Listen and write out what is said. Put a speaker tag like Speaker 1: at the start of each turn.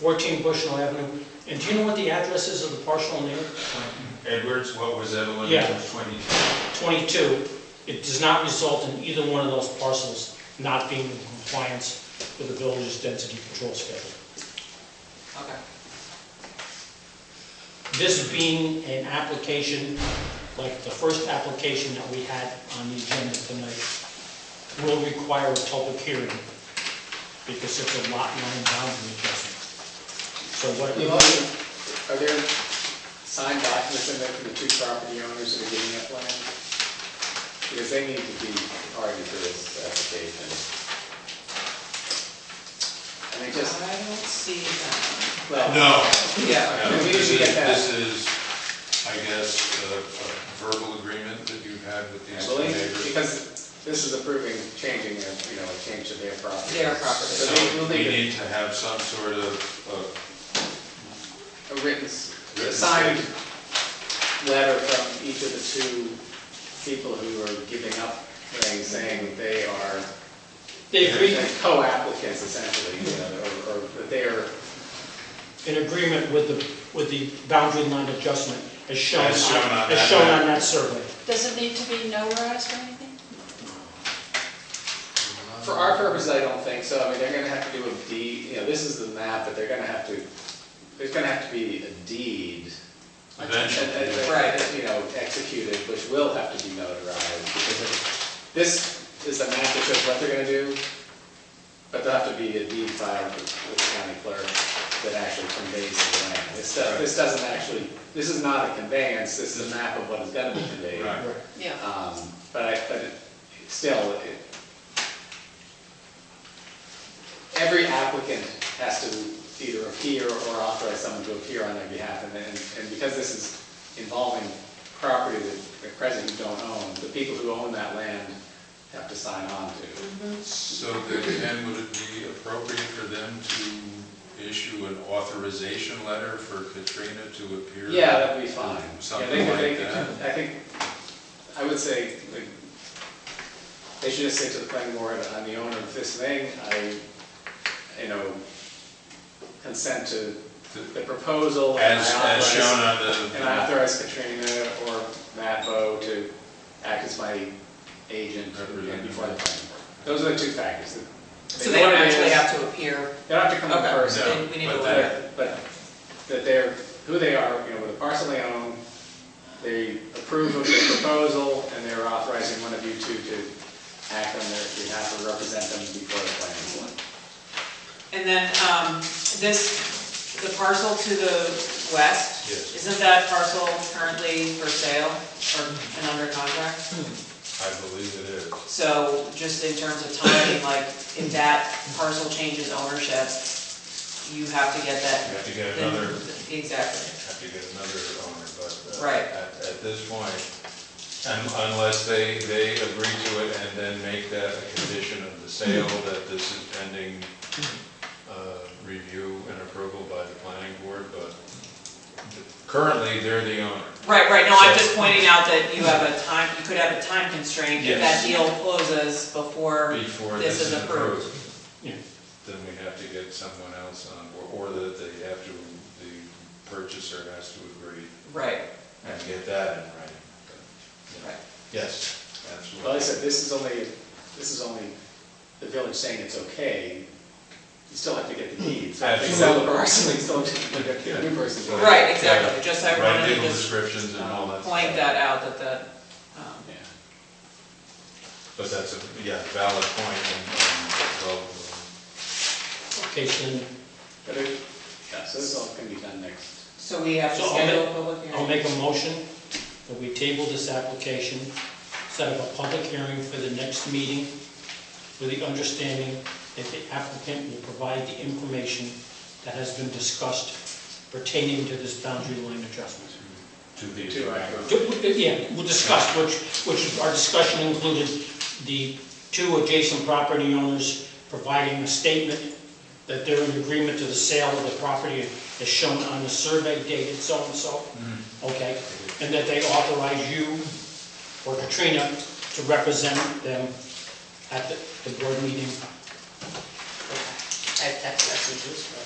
Speaker 1: 14 Bushnell Avenue. And do you know what the address is of the parcel name?
Speaker 2: Edwards, what was Evelyn?
Speaker 1: Yeah.
Speaker 2: Twenty,
Speaker 1: 22. It does not result in either one of those parcels not being in compliance with the village's density control schedule.
Speaker 3: Okay.
Speaker 1: This being an application, like the first application that we had on the agenda tonight, will require a public hearing because it's a lot line boundary adjustment. So what it
Speaker 4: You
Speaker 1: would
Speaker 4: know, Are there signed documents in there for the two property owners that are giving up land? Because they need to be party to this application. And they just,
Speaker 3: I don't see that.
Speaker 4: well.
Speaker 2: No.
Speaker 4: Yeah, I
Speaker 2: Yeah,
Speaker 4: mean, we
Speaker 2: This
Speaker 4: didn't
Speaker 2: is,
Speaker 4: get
Speaker 2: this
Speaker 4: that.
Speaker 2: is, I guess, a a verbal agreement that you've had with these two
Speaker 4: Actually,
Speaker 2: neighbors.
Speaker 4: because this is approving, changing, their, you know, a change to their property.
Speaker 3: Their property.
Speaker 4: So they will
Speaker 2: So we need
Speaker 4: need
Speaker 2: to have some sort of, uh, of
Speaker 4: a written, s-
Speaker 2: Written
Speaker 4: signed letter from each of the two people who are giving up things, saying that they are
Speaker 1: They agree
Speaker 4: They're Co-applicants essentially, you know, or, or that they're,
Speaker 1: in agreement with the, with the boundary line adjustment as shown on,
Speaker 2: As shown
Speaker 1: as
Speaker 2: on that
Speaker 1: shown
Speaker 2: map.
Speaker 1: on that survey.
Speaker 5: Does it need to be notarized or anything?
Speaker 4: for our purposes, I don't think so. I mean, they're gonna have to do a deed, you know, this is the map, but they're gonna have to, there's gonna have to be a deed.
Speaker 2: eventually.
Speaker 4: and- and- Right, you know, executed, which will have to be notarized because of- this is the map that shows what they're gonna do, but there'll have to be a deed filed with with the county clerk that actually conveys the land. This, does- this doesn't actually, this is not a conveyance, this is a map of what is gonna be conveyed.
Speaker 2: Right.
Speaker 5: Yeah.
Speaker 2: Uh,
Speaker 4: Um, But I, but it- still, it- every applicant has to either appear or authorize someone to appear on their behalf. And then, and because this is involving property that the present you don't own, the people who own that land have to sign on to.
Speaker 2: So then, Ken, would it be appropriate for them to issue an authorization letter for Katrina to appear?
Speaker 4: Yeah, that'd be fine. Yeah, they
Speaker 2: Something
Speaker 4: could- they
Speaker 2: like
Speaker 4: could-
Speaker 2: that?
Speaker 4: I think, I would say, like, they should just say to the planning board, I'm the owner of this thing, I, you know, consent to the proposal. and I
Speaker 2: As, as
Speaker 4: authorize-
Speaker 2: shown on the.
Speaker 4: And I authorize Katrina or Matt Bowe to act as my agent and before the planning board. Those are the two factors.
Speaker 3: So they don't actually have to appear,
Speaker 4: They don't have to come in
Speaker 3: Okay.
Speaker 4: person.
Speaker 3: So we- we need
Speaker 2: No,
Speaker 3: to
Speaker 2: but
Speaker 3: let
Speaker 2: that,
Speaker 4: But, but that they're, who they are, you know, with the parcel they own, they approve of the proposal, and they're authorizing one of you two to act on their behalf or represent them before the planning board.
Speaker 3: and then, um, this, the parcel to the west?
Speaker 2: Yes.
Speaker 3: Isn't that parcel currently for sale or and under contract?
Speaker 2: I believe it is.
Speaker 3: So just in terms of timing, like, if that parcel changes ownership, you have to get
Speaker 2: You
Speaker 3: that.
Speaker 2: have to get another,
Speaker 3: Exactly.
Speaker 2: have to get another owner, but. uh,
Speaker 3: Right.
Speaker 2: At, at this point, un- unless they, they agree to it and then make that a condition of the sale,
Speaker 3: Mm-hmm.
Speaker 2: that this is pending, uh, review and approval by the planning board, but currently, they're the owner.
Speaker 3: Right, right, no, I'm
Speaker 2: So-
Speaker 3: just pointing out that you have a time, you could have a time constraint if
Speaker 2: Yes.
Speaker 3: that deal closes before,
Speaker 2: Before
Speaker 3: This
Speaker 2: this
Speaker 3: is
Speaker 2: is
Speaker 3: approved.
Speaker 2: approved,
Speaker 1: Yeah.
Speaker 2: then we have to get someone else on, board, or that they have to, the purchaser has to agree
Speaker 3: right,
Speaker 2: and get that in writing.
Speaker 3: right.
Speaker 2: Yes, absolutely.
Speaker 4: Well, like I said, this is only, this is only the village saying it's okay, you still have to get the deeds. So if they sell the parcel, you still have to get the new person's. deed.
Speaker 3: Right, exactly, just I
Speaker 2: Right,
Speaker 3: wanted to
Speaker 2: legal
Speaker 3: just
Speaker 2: descriptions and all that.
Speaker 3: point
Speaker 2: stuff.
Speaker 3: that out, that the, um,
Speaker 4: Yeah.
Speaker 2: But that's a, yeah, valid point and, um, well,
Speaker 1: Okay, so then
Speaker 4: But it, yeah, so this all can be done next.
Speaker 3: so we have to
Speaker 1: So I'll make-
Speaker 3: schedule a public hearing.
Speaker 1: I'll make a motion that we table this application, set up a public hearing for the next meeting with the understanding that the applicant will provide the information that has been discussed pertaining to this boundary line adjustment.
Speaker 2: to the.
Speaker 4: Two, right.
Speaker 1: Do- Yeah, we'll discuss, which, which our discussion included the two adjacent property owners providing a statement that they're in agreement to the sale of the property as shown on the survey dated so-and-so, okay? And that they authorize you or Katrina to represent them at the, the board meeting.
Speaker 6: I have text messages from